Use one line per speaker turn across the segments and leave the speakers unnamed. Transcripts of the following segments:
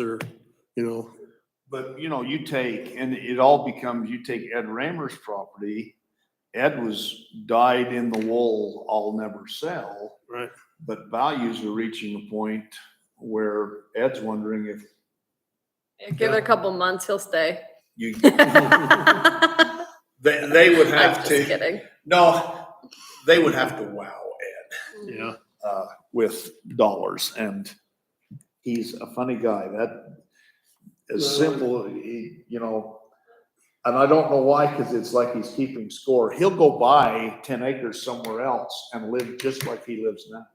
or, you know,
But, you know, you take, and it all becomes, you take Ed Ramer's property. Ed was died in the wool, I'll never sell.
Right.
But values are reaching a point where Ed's wondering if
Yeah, Give it a couple months, he'll stay.
You,
I'm
they, they would have
just
to,
kidding.
no, they would have to wow Ed.
yeah,
uh, with dollars and he's a funny guy. That is
Well-
simple, he, you know. And I don't know why, cause it's like he's keeping score. He'll go buy ten acres somewhere else and live just like he lives now.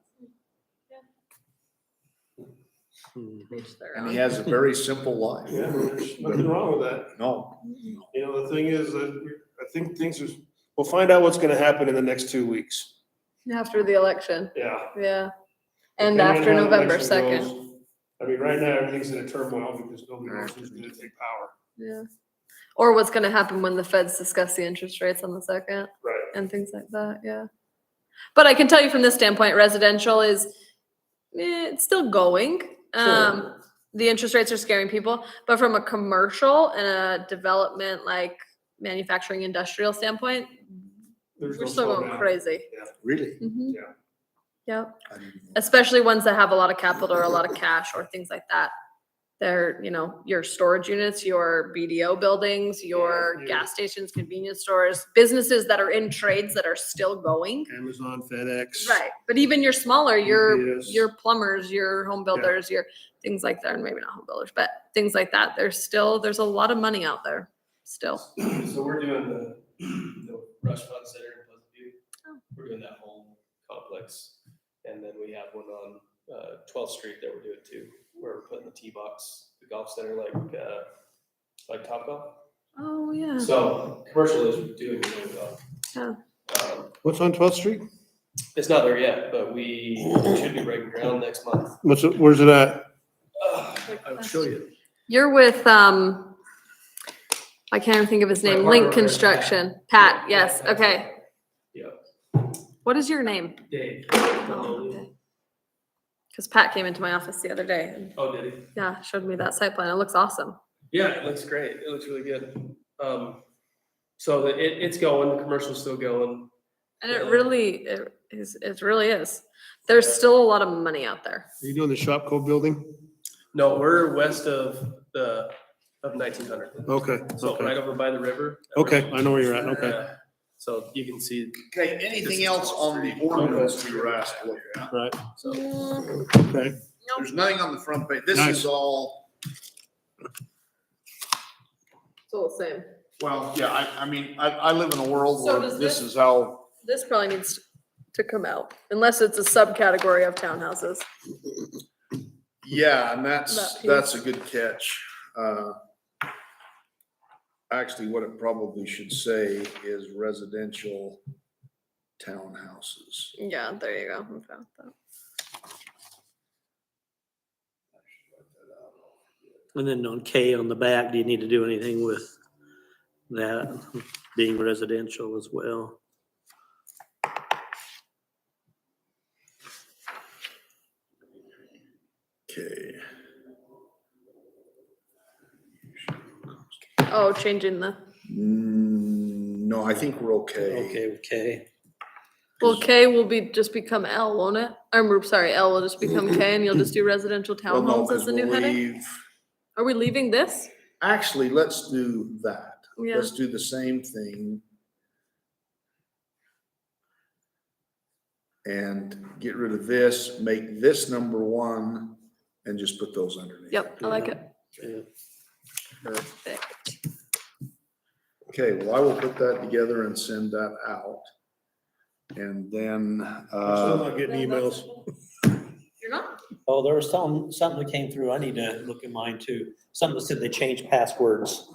Mhm.
Each their
And he
own.
has a very simple life.
Yeah, there's nothing wrong with that.
No,
You know, the thing is that we- I think things is, we'll find out what's gonna happen in the next two weeks.
After the election,
Yeah.
yeah.
Depending
And
on
after
how the
November
election goes.
second,
I mean, right now, everything's in a turmoil because nobody knows who's gonna take power.
yeah. Or what's gonna happen when the feds discuss the interest rates on the second
Right.
and things like that, yeah. But I can tell you from this standpoint, residential is, eh, it's still going. Um, the interest rates are scaring people, but from a commercial and a development like manufacturing industrial standpoint,
There's
we're
no
still going
slowdown.
crazy.
really.
Mhm.
Yeah.
Yep,
I didn't know.
especially ones that have a lot of capital or a lot of cash or things like that. They're, you know, your storage units, your BDO buildings, your
Yeah.
gas stations, convenience stores, businesses that are in trades that are still going.
Amazon, FedEx.
Right, but even your smaller, your,
UPS.
your plumbers, your home builders, your things like that, and maybe not home builders, but things like that, there's still, there's a lot of money out there, still.
So we're doing the, the restaurant center in Pleasant View.
Oh.
We're doing that whole complex. And then we have one on, uh, twelfth street that we're doing too, where we're putting the tee box, the golf center like, uh, like Top Golf.
Oh, yeah.
So commercial is doing really well.
Yeah. Oh.
Um,
What's on Twelfth Street?
it's not there yet, but we should be breaking ground next month.
What's, it- where's it at?
Uh, I'll show you.
You're with, um, I can't even think of his
My
name,
partner
Link
over there, Pat.
Construction, Pat, yes,
Pat.
okay.
Yeah,
What is your name?
Dave.
Oh, okay. Cause Pat came into my office the other day and,
Oh, did he?
yeah, showed me that site plan, it looks awesome.
Yeah, it looks great. It looks really good. Um, so the, it, it's going, the commercial's still going.
And it
Yeah.
really, it is, it really is. There's still a lot of money out there.
Are you doing the Shopco building?
No, we're west of the, of nineteen hundred.
Okay,
So right over by the river.
Okay, I know where you're at, okay.
Yeah. So you can see,
Okay, anything else on the ordinance you were asked to look at?
Right,
so.
okay.
There's nothing on the front page. This is all,
It's all the same.
Well, yeah, I, I mean, I, I live in a world
So
where
does
this
this-
is how
This probably needs to come out, unless it's a subcategory of townhouses.
yeah, and that's,
That piece.
that's a good catch. Uh, Actually, what it probably should say is residential townhouses.
Yeah, there you go. I found that.
And then on K on the back, do you need to do anything with that being residential as well?
Okay.
Oh, changing the,
Mm, No, I think we're okay.
Okay, with K.
well, K will be, just become L, won't it? I'm r- sorry, L will just become K and you'll just do residential
Well, no,
townhomes
'cause
as the new
we'll
heading?
leave-
Are we leaving this?
Actually, let's do that.
Yeah,
Let's do the same thing. And get rid of this, make this number one, and just put those underneath.
yep, I like it.
Yeah.
Perfect.
Okay, well, I will put that together and send that out. And then,
I'm
uh,
not getting emails.
You're not?
Oh, there was some, something that came through. I need to look at mine too. Something that said they changed passwords.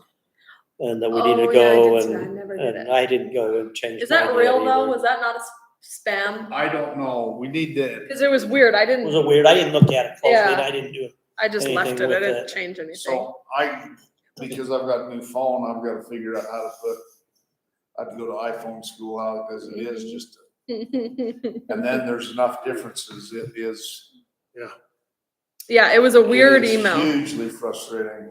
And that we needed
Oh,
to
yeah, I
go
did see that. I
and,
never did
and
it.
I didn't go and change.
Is that
mine
real
yet
though?
either.
Was that not a s- spam?
I don't know. We need to,
Cause it was weird. I
It was
didn't,
a weird, I didn't look at it closely. and
Yeah.
I didn't do it.
I just left it.
anything
I
with
didn't
that.
change anything.
so I, because I've got a new phone, I've got to figure out how to put, I have to go to iPhone school out as it is just, and then there's enough differences. It is.
Yeah.
Yeah, it was a weird
It is
email.
Hugely frustrating.